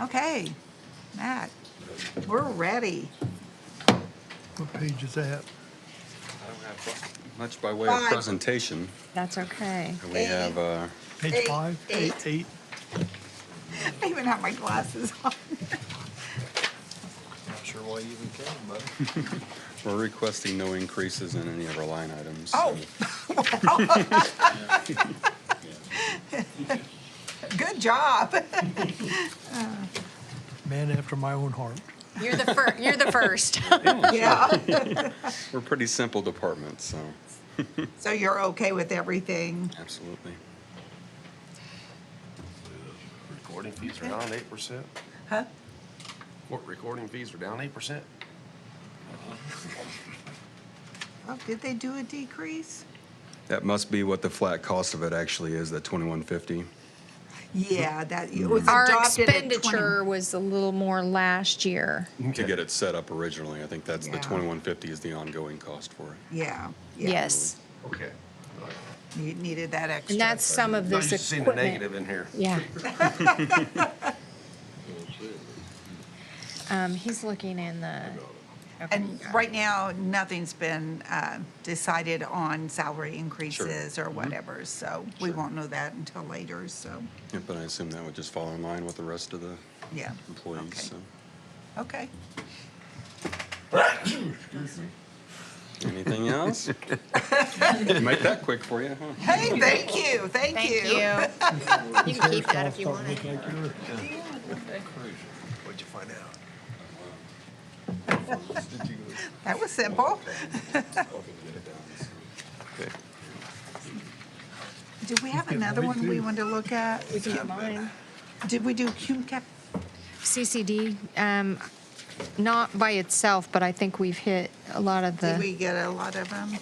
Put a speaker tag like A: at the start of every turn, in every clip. A: Okay, Matt, we're ready.
B: What page is that?
C: I don't have Much by way of
A: Five.
C: presentation,
D: That's okay.
C: and we have, uh,
B: Page
A: Eight,
B: five?
A: eight.
B: Eight.
A: I even have my glasses on.
E: Not sure why you even came, but
C: we're requesting no increases in any of our line items.
A: Oh. Good job.
B: Man after my own heart.
D: You're the fir, you're the first.
A: Yeah.
C: We're a pretty simple department, so,
A: So you're okay with everything?
C: absolutely.
F: Recording fees are down eight percent?
A: Huh?
F: What, recording fees are down eight percent?
A: Oh, did they do a decrease?
C: That must be what the flat cost of it actually is, that twenty-one fifty.
A: Yeah, that, it was
D: Our
A: adopted at 20.
D: expenditure was a little more last year.
C: To get it set up originally, I think that's, the
A: Yeah.
C: twenty-one fifty is the ongoing cost for it.
A: Yeah. yeah.
D: Yes.
F: Okay.
A: You needed that extra.
D: And that's some of
F: Nice
D: this
F: to see the
D: equipment.
F: negative in here.
D: Yeah. Um, he's looking in the. okay,
A: And
D: got it.
A: right now, nothing's been uh, decided on salary increases or whatever, so we won't know that until later, so,
C: Yeah, But I assume that would just fall in line with the rest of the
A: yeah.
C: Mm-hmm. employees, so.
A: Okay.
C: Anything else? Make that quick for you, huh?
A: Hey, thank you, thank
D: Thank
A: you.
D: you. You can keep that if you want it.
E: what'd you find out?
A: That was simple. Do we have another one we want to look at?
D: We can get mine.
A: Did we do cum cap?
D: CCD, um, not by itself, but I think we've hit a lot of
A: Did we
D: the,
A: get a lot of them,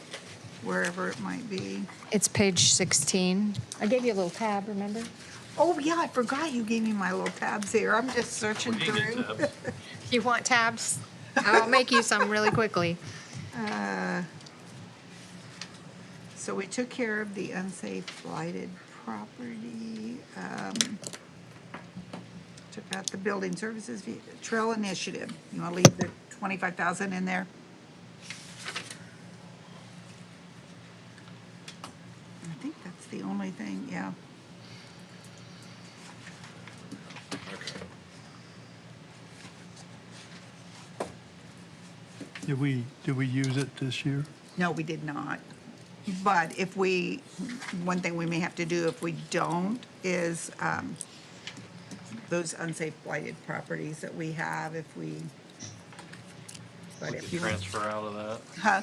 A: wherever it might be?
D: it's page 16. I gave you a little tab, remember?
A: Oh, yeah, I forgot you gave me my little tabs here. I'm just searching through.
D: You want tabs? I'll make you some really quickly.
A: So we took care of the unsafe blighted property, um, took out the building services, fee- trail initiative. You want to leave the twenty-five thousand in there? I think that's the only thing, yeah.
B: Did we, did we use it this year?
A: No, we did not. But if we, one thing we may have to do if we don't is um, those unsafe blighted properties that we have, if we. but
G: We
A: if
G: could
A: you want-
G: transfer out of that.
A: Huh?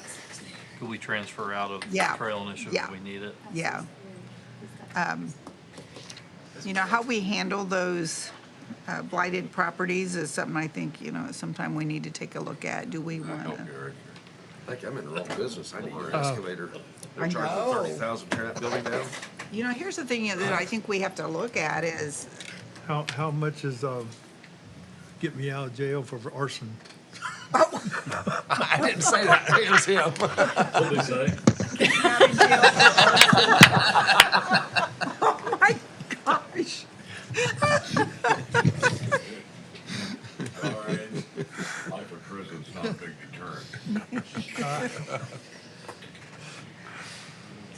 G: Could we transfer out of
A: Yeah,
G: trail initiative
A: yeah.
G: if we need it?
A: Yeah. Um, You know, how we handle those uh, blighted properties is something I think, you know, sometime we need to take a look at. Do we want to?
F: I think I'm in the wrong business. I need your excavator.
A: I
F: They're charging
A: know.
F: thirty thousand, tear that building down.
A: You know, here's the thing that I think we have to look at is,
B: How, how much is, um, get me out of jail for arson?
F: I didn't say that. It was him.
A: oh my gosh.
H: Life in prison's not a big deterrent.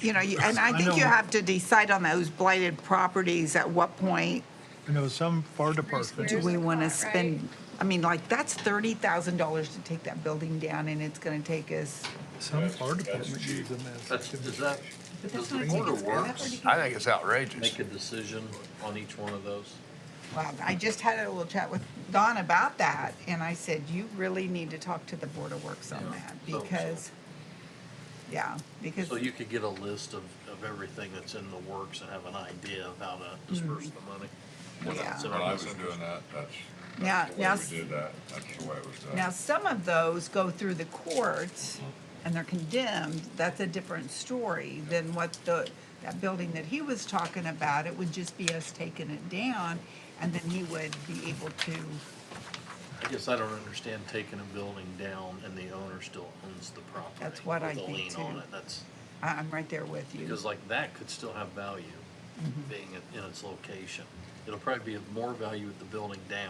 A: You know, you- and I
B: I
A: think you
B: know.
A: have to decide on those blighted properties, at what point
B: I know some fire department,
A: do we
D: There's a
A: want to
D: lot,
A: spend? I mean, like, that's thirty thousand dollars to take that building down, and it's gonna take us,
B: some fire department use them as.
I: That's, does that,
A: but
I: does
A: that's
I: the
A: gonna take
I: border
A: us forever
I: works
A: to get.
E: I think it's outrageous.
I: make a decision on each one of those?
A: Wow, I just had a little chat with Don about that, and I said, you really need to talk to the Board of Works on
I: Yeah.
A: that,
I: So- so-
A: because, yeah, because,
I: So you could get a list of, of everything that's in the works and have an idea of how to disperse
A: Mm-hmm.
I: the money?
A: yeah.
I: So
H: When I was doing that, that's,
A: Now,
H: that's the
A: now,
H: way
A: s-
H: we did that, that's the way it was done.
A: Now, some of those go through the courts and they're condemned, that's a different story than what the, that building that he was talking about, it would just be us taking it down, and then he would be able to,
I: I guess I don't understand taking a building down and the owner still owns the property.
A: That's what I
I: with a
A: think
I: lien
A: too.
I: on it. That's,
A: I- I'm right there with you.
I: because like that could still
A: Mm-hmm.
I: have value being in- in its location. It'll probably be of more value with the building down